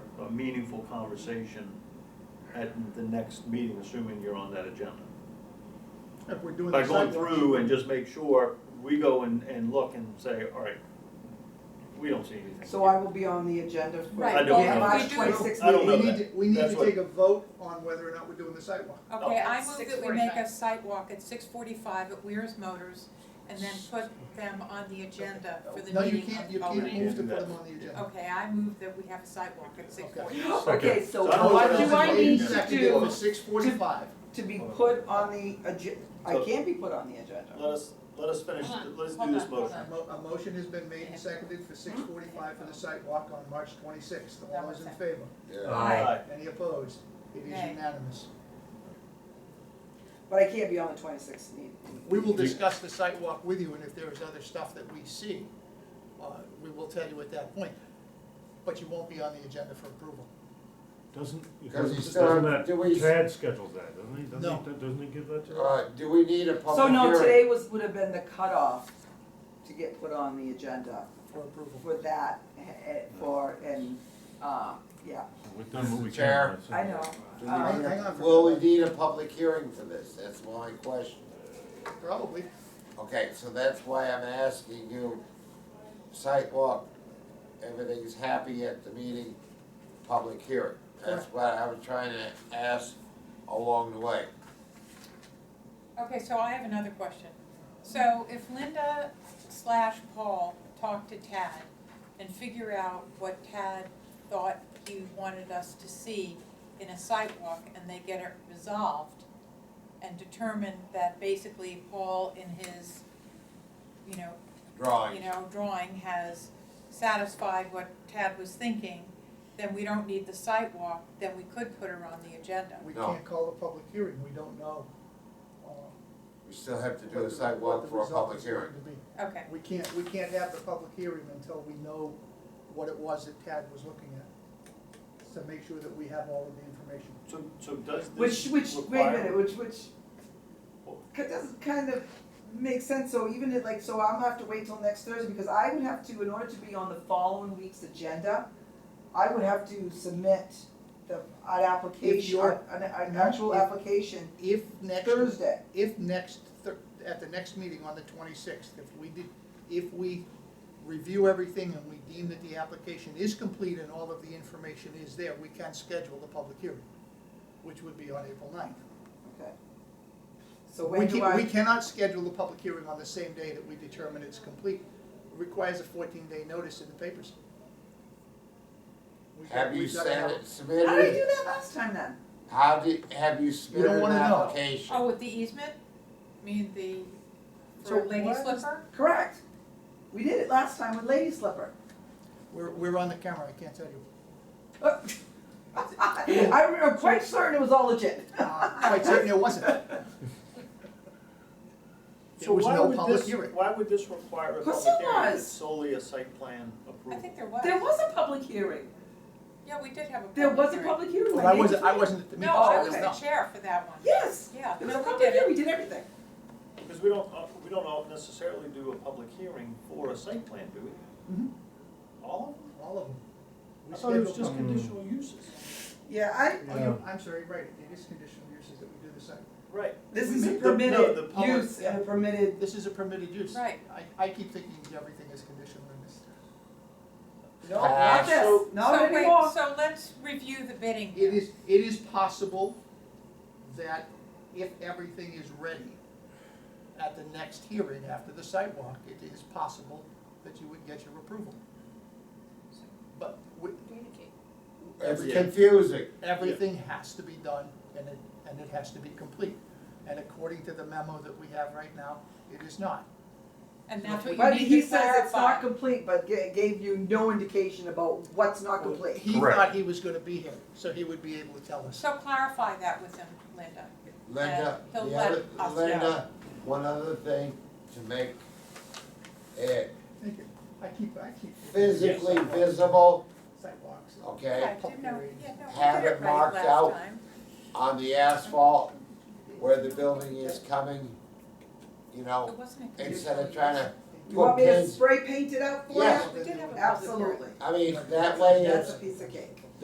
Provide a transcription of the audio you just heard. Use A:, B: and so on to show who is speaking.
A: a meaningful conversation at the next meeting, assuming you're on that agenda.
B: If we're doing
A: By
B: the
A: going
B: sidewalks.
A: through and just make sure, we go and, and look and say, all right, we don't see anything.
C: So I will be on the agenda for
D: Right,
A: I don't
C: the
A: have
C: March
D: that. We do.
C: twenty-sixth
A: I don't
B: We
A: know
C: meeting.
B: need,
A: that.
B: to- we need
A: That's
B: to
A: what-
B: take a vote on whether or not we're doing the sidewalk.
D: Okay,
E: Oh.
D: I move that we make
E: 6:45.
D: a sidewalk at six forty-five at Weir's Motors and then put them on the agenda for the
B: No, you
D: meeting
B: can't, you
D: of
B: can't
D: already.
B: move to put
A: Yeah.
B: them on the agenda.
D: Okay, I move that we have a sidewalk at six forty-five.
C: Okay, so
A: So I don't
C: what
A: know
C: do
A: what
C: I
A: else
C: need
A: is
C: to
A: needed.
C: do
B: Six forty-five.
C: to be put on the agen, I
A: So-
C: can't be put on the agenda.
A: Let us, let us finish,
E: Hold on,
A: let us do
E: hold
A: this
E: on, hold
A: motion.
B: A mo- a motion has been made and seconded for
C: Hmm?
B: six forty-five for the sidewalk on March twenty-sixth. All those in favor?
F: Uh,
A: Aye.
B: Any opposed? It is
D: Nay.
B: unanimous.
C: But I can't be on the twenty-sixth meeting.
B: We will discuss the sidewalk with you, and if there is other stuff that we see, uh, we will tell you at that point. But you won't be on the agenda for approval.
F: Doesn't,
G: Because he's still-
F: doesn't that,
G: do we-
F: Tad schedules that, doesn't he? Doesn't
B: No.
F: he, doesn't he give that to us?
G: Uh, do we need a
C: So
G: public hearing?
C: no, today was, would have been the cutoff to get put on the agenda
B: For approval.
C: for that, eh, eh, for, and, uh, yeah,
F: We've done what we
G: Mr.
F: can.
G: Chair.
F: that's it.
C: I know.
G: Do we
C: Um,
G: need a-
B: Hang on for a
G: Will we
B: minute.
G: need a public hearing for this? That's my question.
B: Probably.
G: Okay, so that's why I'm asking you, sidewalk, everything's happy at the meeting, public hearing. That's what I was trying to ask along the way.
D: Okay, so I have another question. So if Linda slash Paul talked to Tad and figure out what Tad thought he wanted us to see in a sidewalk and they get it resolved and determine that basically Paul in his, you know, you
G: Drawing,
D: know, drawing has satisfied what Tad was thinking, then we don't need the sidewalk, then we could put her on the agenda.
B: We
G: No.
B: can't call a public hearing, we don't know. uh,
G: we still have to do
B: what
G: a
B: the-
G: sidewalk
B: what the
G: for a
B: result
G: public
B: is going
G: hearing.
B: to be.
D: Okay,
B: We can't, we can't have the public hearing until we know what it was that Tad was looking at. To make sure that we have all of the information.
A: So, so does
C: Which,
A: this
C: which, wait a
A: require-
C: minute, which, which,
A: What?
C: that doesn't kind of make sense, so even if, like, so I'm gonna have to wait till next Thursday, because I would have to, in order to be on the following week's agenda, I would have to submit the, an application,
B: you're- Mm-hmm.
C: an, an actual
B: If-
C: application
B: If next,
C: Thursday.
B: if next, Thur- at the next meeting on the twenty-sixth, if we did, if we review everything and we deem that the application is complete and all of the information is there, we can schedule the public hearing, which would be on April 9th.
C: Okay. So
B: We
C: when do
B: can, we
C: I,
B: cannot schedule the public hearing on the same day that we determine it's complete. It Requires a fourteen day notice in the papers. We've got-
G: Have you
B: we've gotta have-
G: sent it, submitted?
C: how did I do that last time then?
G: How did, have you submitted an
B: wanna know.
G: application?
D: oh, with the easement, I mean, the,
B: So
D: for Lady
B: what-
D: Slipper?
C: Correct. We did it last time with Lady Slipper.
B: We're, we're on the camera, I can't tell you.
C: I, I'm quite certain it was all legit.
B: Uh, Quite certain it wasn't. There
A: So
B: was
A: why
B: no
A: would
B: public
A: this-
B: hearing.
A: Why would this require a
C: Of course
A: public
C: it
A: hearing? It's
C: was.
A: solely a site plan
D: I
A: approval.
D: think there was.
C: There was a public hearing.
D: Yeah, we did have a public
C: There was a
D: hearing.
C: public hearing.
B: But I wasn't, I wasn't at the meeting.
D: No, I
C: Oh,
D: was
C: okay.
D: the chair for that one.
C: Yes,
D: Yeah,
C: it was a
D: no, we
C: public
D: did
C: hearing,
D: it.
C: we did everything.
A: Because we don't, uh, we don't all necessarily do a public hearing for a site plan, do we?
B: Mhm.
C: Mm-hmm.
A: All of them?
B: All of them. We
A: I thought it was
B: scheduled-
A: just
F: Mm.
A: conditional uses.
C: Yeah, I,
B: Oh, you- I'm sorry, right, it is conditional uses that we do the site.
A: Right.
C: this
A: We
C: is a
A: make the- no,
C: permitted
A: the public-
C: use and a permitted,
B: This is a permitted use.
D: Right.
B: I, I keep thinking everything is conditional in this.
C: no,
G: Ah,
C: not this,
A: so-
C: not
D: So
C: anymore.
D: wait, so let's review the bidding
B: It
D: here.
B: is, it is possible that if everything is ready at the next hearing after the sidewalk, it is possible that you would get your approval. But we-
E: Communicate.
G: It's
A: Yeah.
G: confusing.
B: everything has to be done and it, and it has to be complete. And according to the memo that we have right now, it is not.
D: And that's what
C: But
D: you
C: he
D: need to
C: says it's
D: clarify.
C: not complete, but ga- gave you no indication about what's not complete.
B: He
F: Correct.
B: thought he was gonna be here, so he would be able to tell us.
D: So clarify that with him, Linda.
G: Linda,
D: Uh, he'll
G: the
D: let
G: other,
D: us know.
G: Linda, one other thing to make it
B: Thank you. I keep, I keep.
G: physically
B: Sidewalks.
G: visible,
B: Sidewalks.
D: Yeah,
G: okay?
D: I didn't know, yeah, no, we
G: Have
D: did
G: it
D: it right
G: marked
D: last
G: out.
D: time.
G: On the asphalt where the building is coming, you
D: It
G: know,
D: wasn't a.
G: instead of trying to,
C: You want me to
G: Well, kids-
C: spray paint it out for you?
G: Yes.
D: We did have a public hearing.
C: Absolutely.
G: I mean, that way
C: That's
G: it's,
C: a piece of cake.